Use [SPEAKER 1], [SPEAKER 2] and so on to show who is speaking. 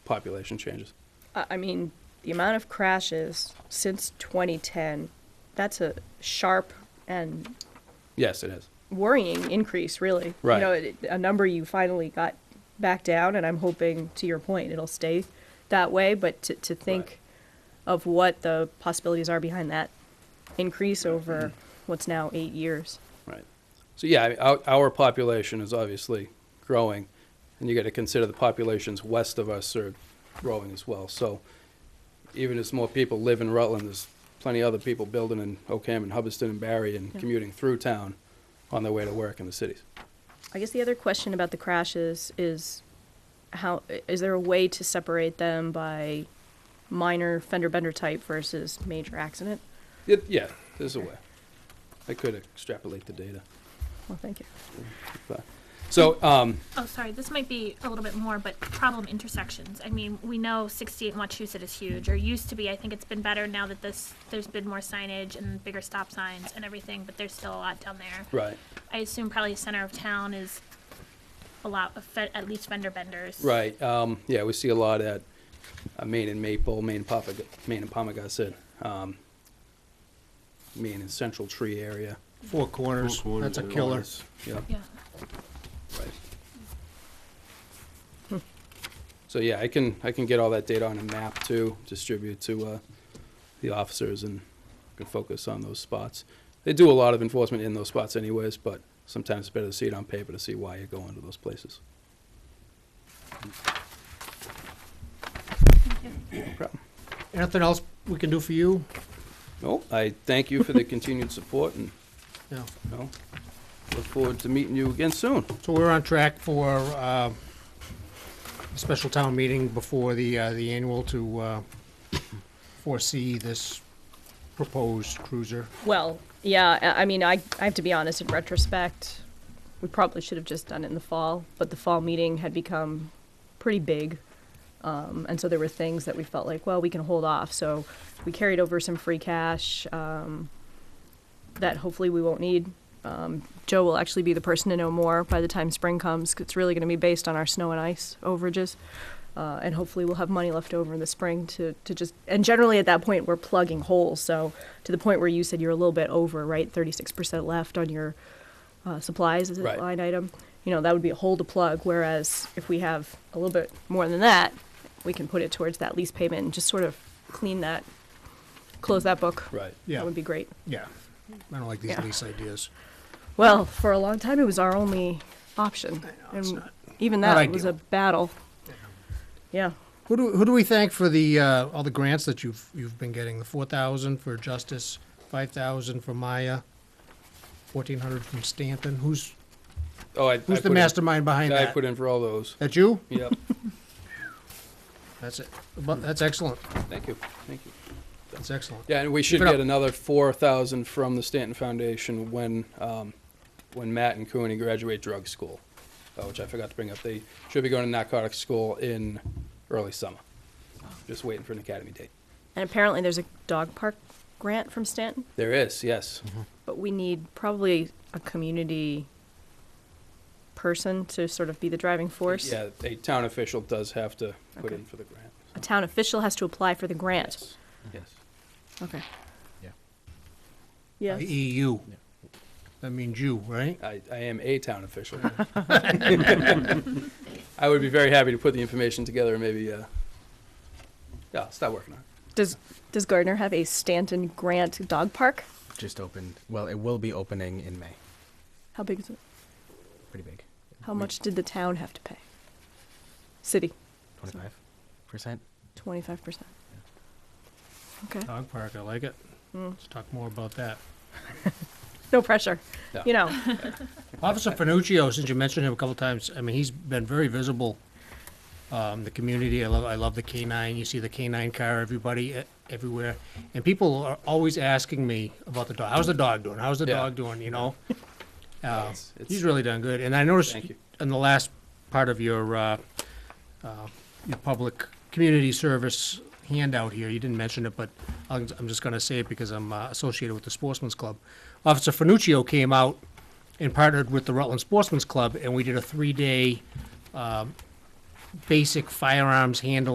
[SPEAKER 1] population changes.
[SPEAKER 2] I I mean, the amount of crashes since 2010, that's a sharp and
[SPEAKER 1] Yes, it is.
[SPEAKER 2] worrying increase, really.
[SPEAKER 1] Right.
[SPEAKER 2] You know, it, a number you finally got back down, and I'm hoping, to your point, it'll stay that way. But to, to think
[SPEAKER 1] Right.
[SPEAKER 2] of what the possibilities are behind that increase
[SPEAKER 1] Mm-hmm.
[SPEAKER 2] over what's now eight years.
[SPEAKER 1] Right. So yeah, I mean, our, our population is obviously growing, and you got to consider the populations west of us are growing as well. So even as more people live in Rutland, there's plenty of other people building in Oakham and Hubbardston and Barry and
[SPEAKER 2] Yeah.
[SPEAKER 1] commuting through town on their way to work in the cities.
[SPEAKER 2] I guess the other question about the crashes is how is there a way to separate them by minor fender bender type versus major accident?
[SPEAKER 1] It, yeah, there's a way. I could extrapolate the data.
[SPEAKER 2] Well, thank you.
[SPEAKER 1] But, so um,
[SPEAKER 3] Oh, sorry, this might be a little bit more, but problem intersections. I mean, we know 68 Wachusett is huge, or used to be. I think it's been better now that this, there's been more signage and bigger stop signs and everything, but there's still a lot down there.
[SPEAKER 1] right,
[SPEAKER 3] I assume probably center of town is a lot of, fe- at least fender benders.
[SPEAKER 1] right. Um, yeah, we see a lot at uh, Maine and Maple, Maine and Papa, Maine and Palmagussit, um, Maine and Central Tree area.
[SPEAKER 4] Four corners,
[SPEAKER 5] Four
[SPEAKER 4] that's a
[SPEAKER 5] corners,
[SPEAKER 4] killer.
[SPEAKER 1] Yep,
[SPEAKER 3] Yeah.
[SPEAKER 1] right. So yeah, I can, I can get all that data on a map too, distribute to, uh, the officers and can focus on those spots. They do a lot of enforcement in those spots anyways, but sometimes it's better to see it on paper to see why you're going to those places. No problem.
[SPEAKER 4] Anything else we can do for you?
[SPEAKER 1] No, I thank you for the continued support and,
[SPEAKER 4] No.
[SPEAKER 1] you know, look forward to meeting you again soon.
[SPEAKER 4] So we're on track for uh, a special town meeting before the, uh, the annual to uh, foresee this proposed cruiser.
[SPEAKER 2] Well, yeah, I I mean, I, I have to be honest, in retrospect, we probably should have just done it in the fall, but the fall meeting had become pretty big. Um, and so there were things that we felt like, well, we can hold off. So we carried over some free cash um, that hopefully we won't need. Um, Joe will actually be the person to know more by the time spring comes. 'cause It's really going to be based on our snow and ice overages. Uh, and hopefully we'll have money left over in the spring to, to just, and generally at that point, we're plugging holes. So to the point where you said you're a little bit over, right? 36% left on your uh, supplies as a
[SPEAKER 1] Right.
[SPEAKER 2] line item. You know, that would be a hole to plug. Whereas if we have a little bit more than that, we can put it towards that lease payment and just sort of clean that, close that book.
[SPEAKER 1] Right.
[SPEAKER 2] That
[SPEAKER 4] Yeah,
[SPEAKER 2] would be great.
[SPEAKER 4] yeah. I don't like these
[SPEAKER 2] Yeah.
[SPEAKER 4] lease ideas.
[SPEAKER 2] Well, for a long time, it was our only option.
[SPEAKER 4] it's
[SPEAKER 2] and
[SPEAKER 4] not-
[SPEAKER 2] even
[SPEAKER 4] not
[SPEAKER 2] that was a
[SPEAKER 4] ideal.
[SPEAKER 2] battle. Yeah.
[SPEAKER 4] Who do, who do we thank for the, uh, all the grants that you've, you've been getting? The four thousand for Justice, five thousand for Maya, fourteen hundred from Stanton. Who's,
[SPEAKER 1] Oh, I. I
[SPEAKER 4] who's
[SPEAKER 1] put
[SPEAKER 4] the
[SPEAKER 1] in-
[SPEAKER 4] mastermind behind
[SPEAKER 1] I
[SPEAKER 4] that?
[SPEAKER 1] put in for all those.
[SPEAKER 4] That you?
[SPEAKER 1] Yep,
[SPEAKER 4] That's it. But that's excellent.
[SPEAKER 1] thank you, thank you.
[SPEAKER 4] That's excellent.
[SPEAKER 1] Yeah, and we should
[SPEAKER 4] Keep it up.
[SPEAKER 1] get another four thousand from the Stanton Foundation when, um, when Matt and Cooney graduate drug school, uh, which I forgot to bring up. They should be going to narcotics school in early summer. Just waiting for an academy date.
[SPEAKER 2] And apparently, there's a dog park grant from Stanton,
[SPEAKER 1] There is, yes.
[SPEAKER 2] but we need probably a community person to sort of be the driving force.
[SPEAKER 1] Yeah, a town official does have to put
[SPEAKER 2] Okay.
[SPEAKER 1] in for the grant.
[SPEAKER 2] A town official has to apply for the grant.
[SPEAKER 1] Yes, yes.
[SPEAKER 2] Okay.
[SPEAKER 5] Yeah.
[SPEAKER 2] Yeah.
[SPEAKER 4] EU. That means you, right?
[SPEAKER 1] I, I am a town official. I would be very happy to put the information together and maybe, uh, yeah, I'll start working on it.
[SPEAKER 2] Does Does Gardner have a Stanton grant dog park?
[SPEAKER 5] Just opened. Well, it will be opening in May.
[SPEAKER 2] How big is it?
[SPEAKER 5] Pretty big.
[SPEAKER 2] How much did the town have to pay? City,
[SPEAKER 5] Twenty-five percent.
[SPEAKER 2] twenty-five percent. Okay.
[SPEAKER 4] Dog park, I like it. Let's talk more about that.
[SPEAKER 2] No pressure.
[SPEAKER 1] No.
[SPEAKER 2] You know.
[SPEAKER 4] Officer Finuccio, since you mentioned him a couple times, I mean, he's been very visible. Um, the community, I love, I love the K-9. You see the K-9 car, everybody, eh, everywhere. And people are always asking me about the dog. How's the dog doing? How's the
[SPEAKER 1] Yeah.
[SPEAKER 4] dog doing, you know? Uh,
[SPEAKER 1] It's- it's-
[SPEAKER 4] He's really done good. And I noticed
[SPEAKER 1] Thank you.
[SPEAKER 4] in the last part of your, uh, uh, your public community service handout here, you didn't mention it, but I'm, I'm just gonna say it because I'm uh, associated with the Sportsman's Club. Officer Finuccio came out and partnered with the Rutland Sportsman's Club, and we did a three-day, um, uh, basic firearms handling.